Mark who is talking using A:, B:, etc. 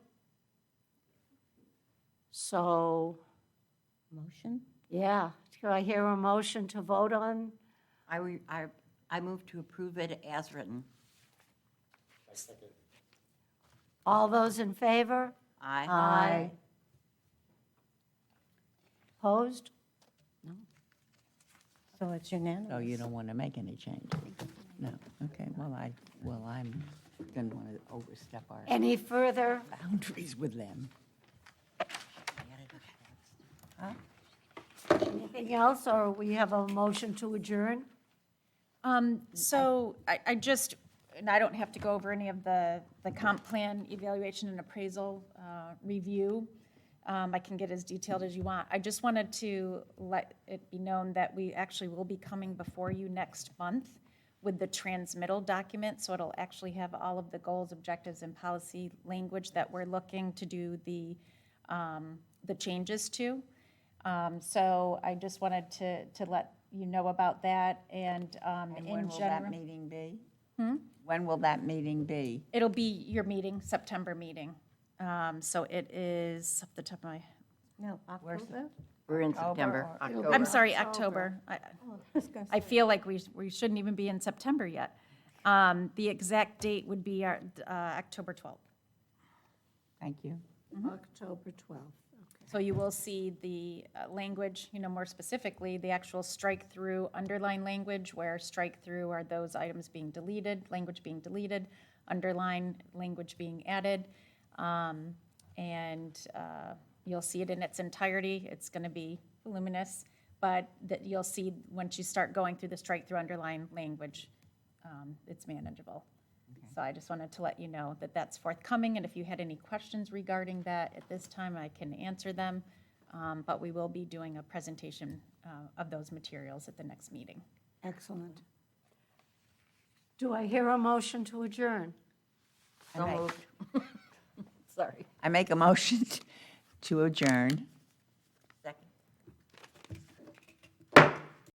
A: So,
B: Motion?
A: yeah, do I hear a motion to vote on?
B: I, re- I, I move to approve it as written.
A: All those in favor?
B: Aye.
A: Opposed?
C: So it's
D: Oh,
C: unanimous.
D: you don't want to make any changes? No, okay, well, I, well, I'm, didn't want to overstep our
A: Any further?
D: boundaries with them.
A: Anything else, or we have a motion to adjourn?
E: Um, so I, I just, and I don't have to go over any of the, the comp plan evaluation and appraisal, uh, review. Um, I can get as detailed as you want. I just wanted to let it be known that we actually will be coming before you next month with the transmittal document, so it'll actually have all of the goals, objectives, and policy language that we're looking to do the, um, the changes to. Um, So I just wanted to, to let you know about that, and um,
D: And when
E: in
D: will that
E: general,
D: meeting be? When will that meeting be?
E: it'll be your meeting, September meeting. Um, So it is, off the top of my,
C: No, October?
B: We're in September,
D: or-
B: October.
E: I'm sorry, October. Oh, I- I feel like we, we shouldn't even be in September yet. Um, The exact date would be our, uh, October 12th.
D: Thank you.
A: October 12th.
E: So you will see the uh, language, you know, more specifically, the actual strike-through underline language, where strike-through are those items being deleted, language being deleted, underline language being added. Um, And uh, you'll see it in its entirety. It's going to be voluminous, but that you'll see, once you start going through the strike-through underline language, um, it's manageable. So I just wanted to let you know that that's forthcoming, and if you had any questions regarding that, at this time, I can answer them. Um, But we will be doing a presentation uh, of those materials at the next meeting.
A: Excellent. Do I hear a motion to adjourn?
B: So moved. Sorry.
D: I make a motion to adjourn